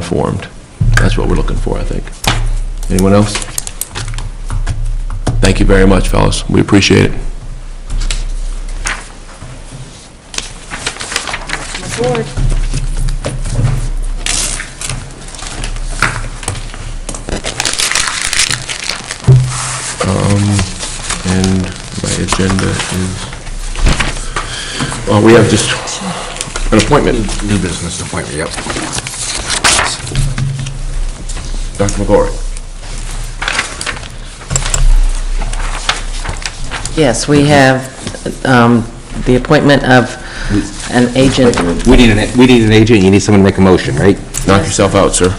informed. That's what we're looking for, I think. Anyone else? Thank you very much, fellas. We appreciate it. Um, And my agenda is, oh, we have just an appointment. New business appointment, yep. Dr. McGory. Yes, we have um, the appointment of an agent. We need an, we need an agent, you need someone to make a motion, right? Knock yourself out, sir.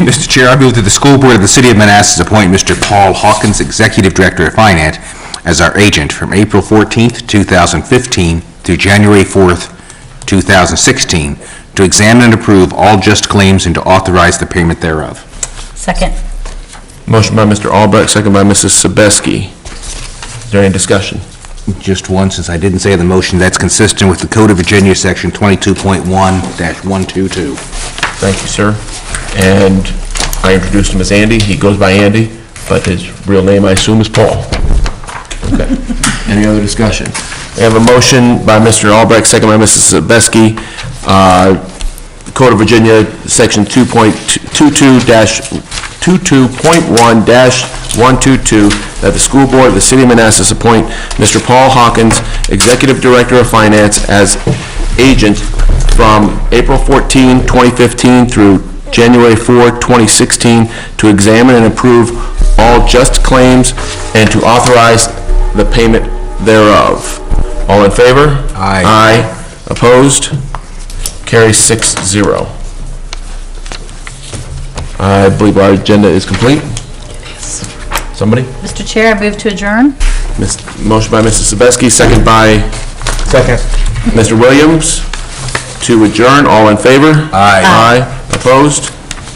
Mr. Chair, I move that the school board of the city of Manassas appoint Mr. Paul Hawkins, Executive Director of Finance, as our agent from April 14th, 2015 through January 4th, 2016, to examine and approve all just claims and to authorize the payment thereof. Second. Motion by Mr. Albrecht, second by Mrs. Sebeski. Is there any discussion? Just one, since I didn't say the motion, that's consistent with the Code of Virginia, Section 22.1-122. Thank you, sir. And I introduced him as Andy. He goes by Andy, but his real name, I assume, is Paul. Okay. Any other discussion? We have a motion by Mr. Albrecht, second by Mrs. Sebeski. Uh, Code of Virginia, Section 2.22-22.1-122, that the school board of the city of Manassas appoint Mr. Paul Hawkins, Executive Director of Finance, as agent from April 14, 2015 through January 4, 2016, to examine and approve all just claims and to authorize the payment thereof. All in favor? Aye. Aye. Opposed? Carries six zero. I believe our agenda is complete. Somebody? Mr. Chair, I move to adjourn. Miss- Motion by Mrs. Sebeski, second by Second. Mr. Williams to adjourn. All in favor? Aye. Aye. Opposed?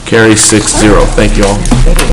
Carries six zero. Thank you all.